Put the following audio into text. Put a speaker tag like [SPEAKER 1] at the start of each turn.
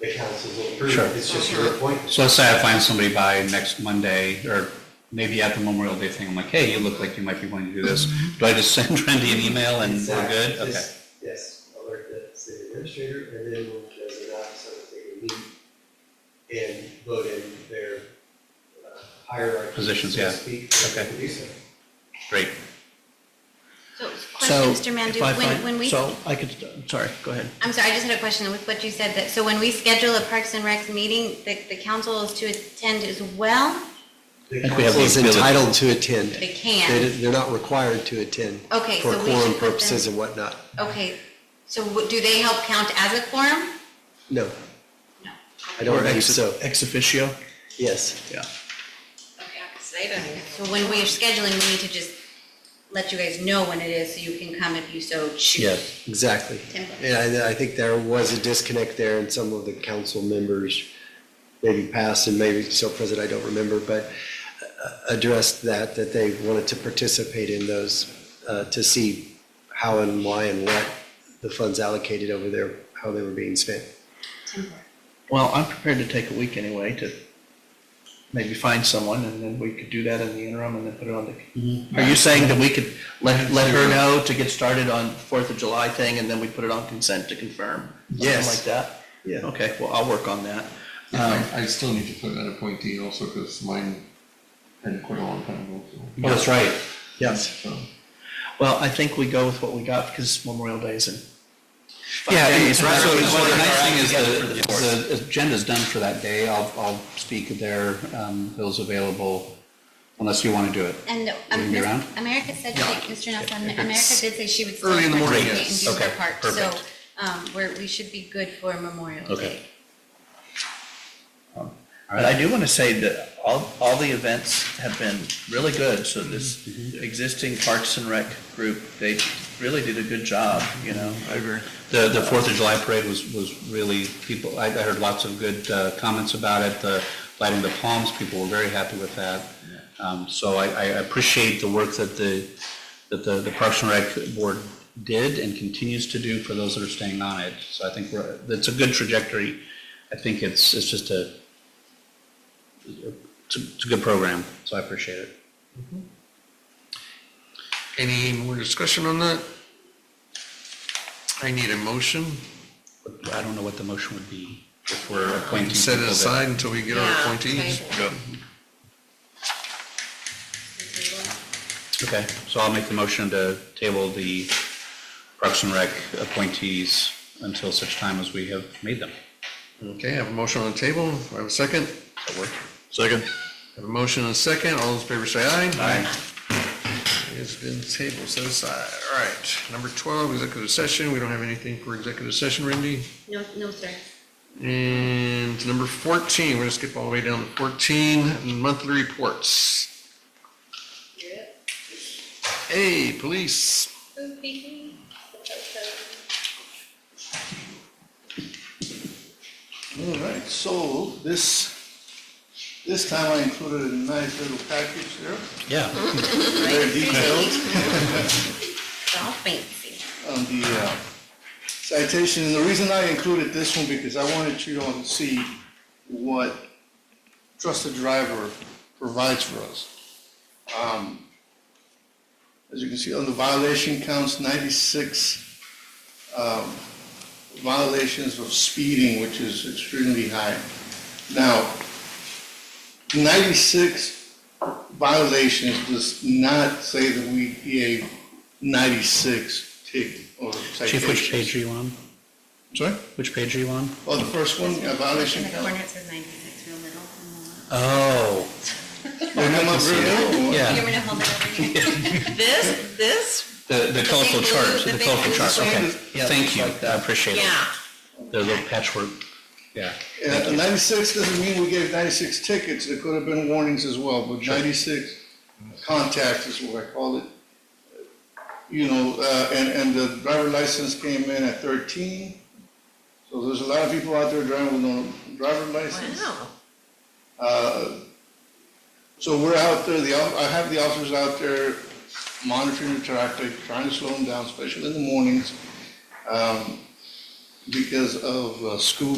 [SPEAKER 1] the council will approve.
[SPEAKER 2] Sure.
[SPEAKER 1] It's just your appointment.
[SPEAKER 2] So let's say I find somebody by next Monday, or maybe at the Memorial Day thing, I'm like, hey, you look like you might be wanting to do this. Do I just send Randy an email and we're
[SPEAKER 1] Exactly.
[SPEAKER 2] good? Okay.
[SPEAKER 1] Just- Yes, alert the city administrator, and then we'll designate so that they can meet and vote in their uh, hierarchy.
[SPEAKER 2] Positions,
[SPEAKER 1] so to
[SPEAKER 2] yeah.
[SPEAKER 1] Speak, so they
[SPEAKER 2] Okay.
[SPEAKER 1] can do so.
[SPEAKER 2] Great.
[SPEAKER 3] So,
[SPEAKER 4] So,
[SPEAKER 3] question, Mr. Mandu,
[SPEAKER 4] if I
[SPEAKER 3] when,
[SPEAKER 4] find-
[SPEAKER 3] when we,
[SPEAKER 4] So I could, sorry, go ahead.
[SPEAKER 3] I'm sorry, I just had a question with what you said, that, so when we schedule a Parks and Recs meeting, the, the council is to attend as well?
[SPEAKER 1] The
[SPEAKER 2] I think we have
[SPEAKER 1] council-
[SPEAKER 2] the
[SPEAKER 5] is
[SPEAKER 2] ability.
[SPEAKER 5] entitled to attend.
[SPEAKER 3] They
[SPEAKER 5] They,
[SPEAKER 3] can,
[SPEAKER 5] they're not required to attend
[SPEAKER 3] okay,
[SPEAKER 5] for
[SPEAKER 3] so we should
[SPEAKER 5] quorum
[SPEAKER 3] put
[SPEAKER 5] purposes
[SPEAKER 3] them.
[SPEAKER 5] and whatnot.
[SPEAKER 3] Okay, so w- do they help count as a quorum?
[SPEAKER 5] No,
[SPEAKER 3] No.
[SPEAKER 5] I don't
[SPEAKER 4] Or
[SPEAKER 5] think
[SPEAKER 4] ex-
[SPEAKER 5] so.
[SPEAKER 4] Ex officio,
[SPEAKER 5] Yes,
[SPEAKER 4] yeah.
[SPEAKER 6] Yeah, 'cause they don't even.
[SPEAKER 3] So when we are scheduling, we need to just let you guys know when it is, so you can come if you so choose.
[SPEAKER 5] yeah, exactly.
[SPEAKER 3] Template.
[SPEAKER 5] And I, I think there was a disconnect there and some of the council members maybe passed and maybe still present, I don't remember, but uh, addressed that, that they wanted to participate in those, uh, to see how and why and what the funds allocated over there, how they were being spent.
[SPEAKER 4] Well, I'm prepared to take a week anyway to maybe find someone and then we could do that in the interim and then put it on the. Are you saying that we could let, let her know to get started on Fourth of July thing and then we put it on consent to confirm? Something
[SPEAKER 5] Yes.
[SPEAKER 4] Like that?
[SPEAKER 5] Yeah.
[SPEAKER 4] Okay, well, I'll work on that. Um,
[SPEAKER 7] Yeah, I, I still need to put an appointee also, because mine had quite a long time ago, so.
[SPEAKER 2] That's right.
[SPEAKER 4] Yes.
[SPEAKER 7] so.
[SPEAKER 4] Well, I think we go with what we got because Memorial Day's in. five
[SPEAKER 2] Yeah, and
[SPEAKER 4] days,
[SPEAKER 2] so
[SPEAKER 4] right?
[SPEAKER 2] well, the nice thing is
[SPEAKER 4] Together for the fourth.
[SPEAKER 2] the, the agenda's done for that day. I'll, I'll speak there, um, Bill's available, unless you want to do it.
[SPEAKER 3] And
[SPEAKER 2] Wanna
[SPEAKER 3] um,
[SPEAKER 2] be
[SPEAKER 3] Miss-
[SPEAKER 2] around?
[SPEAKER 3] America said,
[SPEAKER 4] Yeah.
[SPEAKER 3] that- Mr. Nelson, America did say she would still
[SPEAKER 4] early in the morning,
[SPEAKER 3] participate and
[SPEAKER 4] yes.
[SPEAKER 3] do her
[SPEAKER 2] Okay,
[SPEAKER 3] part. So
[SPEAKER 2] perfect.
[SPEAKER 3] um, we're, we should be good for Memorial
[SPEAKER 2] Okay.
[SPEAKER 3] Day.
[SPEAKER 4] But I do want to say that all, all the events have been really good, so this existing Parks and Rec group, they really did a good job, you know? I agree.
[SPEAKER 2] The, the Fourth of July parade was, was really, people, I, I heard lots of good uh, comments about it, the lighting the palms, people were very happy with that. Um, So I, I appreciate the work that the, that the the Parks and Rec Board did and continues to do for those that are staying on it. So I think we're, it's a good trajectory. I think it's, it's just a, it's a- it's a good program, so I appreciate it.
[SPEAKER 7] Mm-hmm. Any more discussion on that? I need a motion,
[SPEAKER 2] But I don't know what the motion would be if we're appointing.
[SPEAKER 7] Uh, set it
[SPEAKER 2] people that-
[SPEAKER 7] aside until we get our
[SPEAKER 6] Yeah,
[SPEAKER 7] appointees.
[SPEAKER 2] Okay, so I'll make the motion to table the Parks and Rec appointees until such time as we have made them.
[SPEAKER 7] Okay, I have a motion on the table, I have a second,
[SPEAKER 2] Does that work?
[SPEAKER 7] Second. Have a motion and a second, all those in favor say aye.
[SPEAKER 2] Aye.
[SPEAKER 7] It's been tabled, set aside, all right. Number twelve, executive session, we don't have anything for executive session, Randy.
[SPEAKER 3] No, no, sir.
[SPEAKER 7] And number 14, we're going to skip all the way down to 14, monthly reports. Hey, police.
[SPEAKER 8] All right, so this, this time I included a nice little package there,
[SPEAKER 2] Yeah,
[SPEAKER 8] very detailed
[SPEAKER 3] It's all fancy.
[SPEAKER 8] on the uh, citation. And the reason I included this one because I wanted you all to see what trusted driver provides for us. Um, As you can see, on the violation counts, 96 um, violations of speeding, which is extremely high. Now, 96 violations does not say that we gave 96 tickets or citations.
[SPEAKER 2] Chief, which page are you on?
[SPEAKER 8] Sorry?
[SPEAKER 2] Which page are you on?
[SPEAKER 8] Oh, the first one, a violation
[SPEAKER 3] In the corner
[SPEAKER 8] count.
[SPEAKER 3] it says 96, real little.
[SPEAKER 2] Oh,
[SPEAKER 8] They come up very little.
[SPEAKER 3] You're
[SPEAKER 2] yeah,
[SPEAKER 3] going to hold it over here?
[SPEAKER 6] This, this,
[SPEAKER 2] the, the colorful
[SPEAKER 6] big
[SPEAKER 2] chart,
[SPEAKER 6] blue- the
[SPEAKER 2] the
[SPEAKER 6] big
[SPEAKER 2] colorful
[SPEAKER 6] blue
[SPEAKER 2] chart, okay.
[SPEAKER 8] squares.
[SPEAKER 4] Yeah,
[SPEAKER 2] Thank you,
[SPEAKER 4] like
[SPEAKER 2] I appreciate it.
[SPEAKER 6] yeah.
[SPEAKER 2] The little patchwork, yeah.
[SPEAKER 8] Yeah, and 96 doesn't mean we gave 96 tickets, there could have been warnings as well, but 96 contacts is what I called it. You know, uh, and, and the driver license came in at 13, so there's a lot of people out there driving with no driver license.
[SPEAKER 6] Wow.
[SPEAKER 8] Uh, So we're out there, the, off- I have the officers out there monitoring the traffic, trying to slow them down, especially in the mornings, um, because of uh, school